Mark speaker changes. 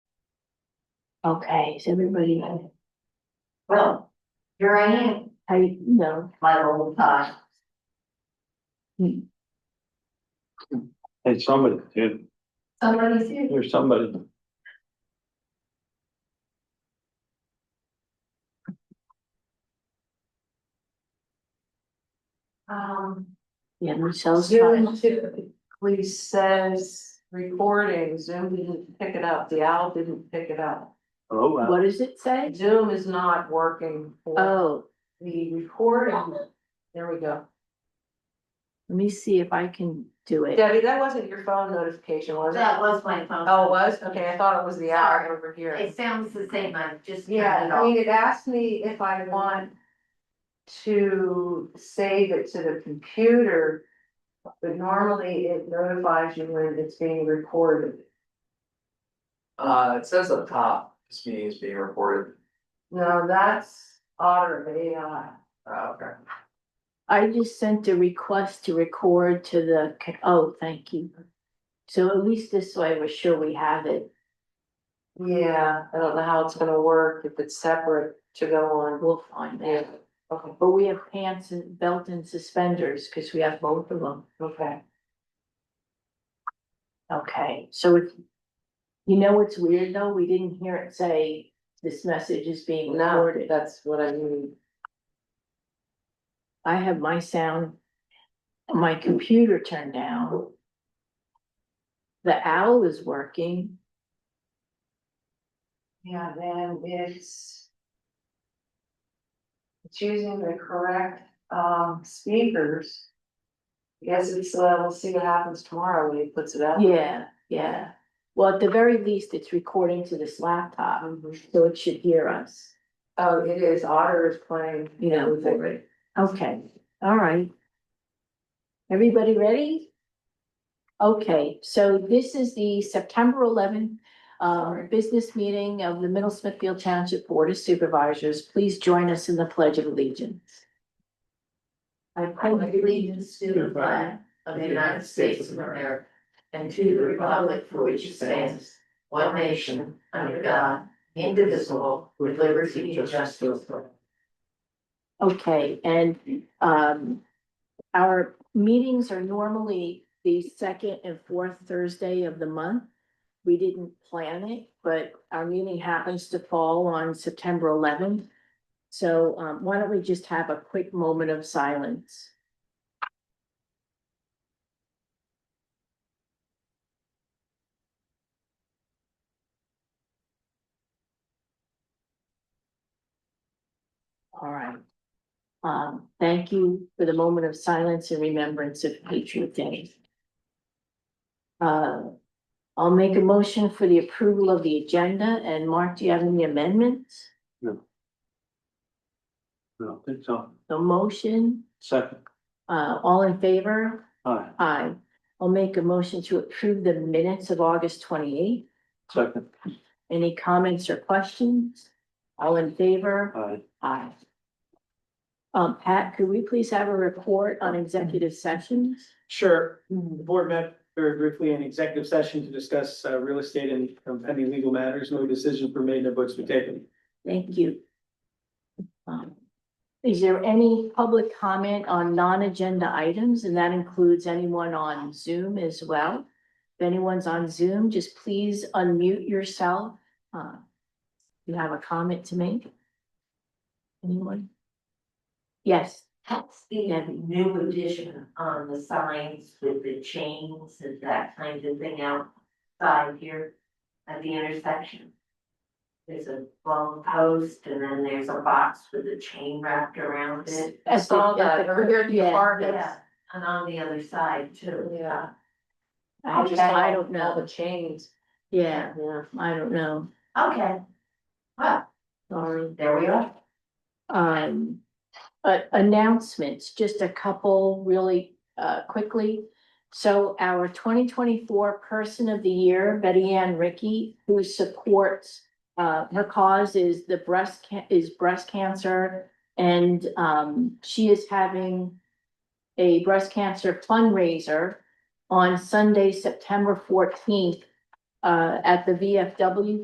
Speaker 1: Okay, is everybody,
Speaker 2: Well, here I am,
Speaker 1: how you, no,
Speaker 2: my old time.
Speaker 3: Hey, somebody, dude,
Speaker 4: oh,
Speaker 2: Somebody's here.
Speaker 3: there's somebody.
Speaker 2: Um,
Speaker 1: yeah, Michelle's
Speaker 2: Zoom
Speaker 1: fine.
Speaker 2: typically says recording, Zoom didn't pick it up, the owl didn't pick it up.
Speaker 3: Oh, wow.
Speaker 1: What does it say?
Speaker 2: Zoom is not working for
Speaker 1: Oh,
Speaker 2: the recording. There we go.
Speaker 1: let me see if I can do it.
Speaker 2: Debbie, that wasn't your phone notification, was it?
Speaker 4: That was my phone.
Speaker 2: Oh, it was? Okay, I thought it was the owl over here.
Speaker 4: It sounds the same, I've just
Speaker 2: Yeah,
Speaker 4: turned it
Speaker 2: I
Speaker 4: off.
Speaker 2: mean, it asked me if I want to save it to the computer. But normally it notifies you when it's being recorded.
Speaker 5: Uh, it says up top, this meeting is being recorded.
Speaker 2: No, that's Otter AI.
Speaker 5: Uh, okay.
Speaker 1: I just sent a request to record to the, co- oh, thank you. So at least this way we're sure we have it.
Speaker 2: Yeah, I don't know how it's gonna work if it's separate to go on.
Speaker 1: We'll find
Speaker 2: Yeah,
Speaker 1: it.
Speaker 2: okay,
Speaker 1: But we have pants and belt and suspenders because we have both of them.
Speaker 2: okay.
Speaker 1: Okay, so it's you know what's weird though? We didn't hear it say this message is being
Speaker 2: Now,
Speaker 1: recorded.
Speaker 2: that's what I need.
Speaker 1: I have my sound, my computer turned down. The owl is working.
Speaker 2: Yeah, then it's. It's using the correct um speakers. I Guess it's, uh, we'll see what happens tomorrow when he puts it out.
Speaker 1: Yeah, yeah. Well, at the very least, it's recording to this laptop,
Speaker 2: Mhm.
Speaker 1: so it should hear us,
Speaker 2: Oh, it is, Otter is playing.
Speaker 1: you know,
Speaker 2: with
Speaker 1: for
Speaker 2: it.
Speaker 1: it. Okay, all right. Everybody ready? Okay, so this is the September eleventh um
Speaker 2: Sorry.
Speaker 1: business meeting of the Middle Smithfield Township Board of Supervisors. Please join us in the Pledge of Allegiance.
Speaker 4: I pledge allegiance to the flag of the United States of America and to the republic for which it stands, one nation, under God, indivisible, with liberty and justice for all.
Speaker 1: Okay, and um our meetings are normally the second and fourth Thursday of the month. We didn't plan it, but our meeting happens to fall on September eleventh. So um why don't we just have a quick moment of silence? All right. Um, thank you for the moment of silence and remembrance of Patriot Day. Uh, I'll make a motion for the approval of the agenda, and Mark, do you have any amendments?
Speaker 3: I don't think so.
Speaker 1: The motion,
Speaker 3: Second,
Speaker 1: uh, all in favor?
Speaker 3: aye,
Speaker 1: Aye. I'll make a motion to approve the minutes of August twenty-eighth.
Speaker 3: second,
Speaker 1: Any comments or questions? All in favor?
Speaker 3: aye.
Speaker 1: Aye. Um, Pat, could we please have a report on executive sessions?
Speaker 6: Sure, the board met very briefly in executive session to discuss uh, real estate and um, pending legal matters. No decisions were made, no votes were taken.
Speaker 1: Thank you. Um, Is there any public comment on non-agenda items? And that includes anyone on Zoom as well. If anyone's on Zoom, just please unmute yourself. Uh, You have a comment to make? Anyone? Yes,
Speaker 4: That's the
Speaker 1: Debbie.
Speaker 4: new addition on the signs with the chains and that kind of thing outside here at the intersection. There's a long post and then there's a box with a chain wrapped around it.
Speaker 2: I saw
Speaker 1: At the- at
Speaker 2: that
Speaker 1: the-
Speaker 2: over here at the
Speaker 1: yeah,
Speaker 2: apartments.
Speaker 4: Yeah, and on the other side too.
Speaker 2: Yeah.
Speaker 1: I
Speaker 2: just
Speaker 1: I
Speaker 2: saw
Speaker 1: don't
Speaker 2: All the
Speaker 1: know.
Speaker 2: chains.
Speaker 1: Yeah,
Speaker 2: Yeah.
Speaker 1: I don't know.
Speaker 4: Okay, well,
Speaker 1: Sorry.
Speaker 4: there we are.
Speaker 1: um, uh, announcements, just a couple really, uh, quickly. So our twenty twenty-four person of the year, Betty Ann Ricky, who supports, uh, her cause is the breast ca- is breast cancer. And, um, she is having a breast cancer fundraiser on Sunday, September fourteenth, uh, at the VFW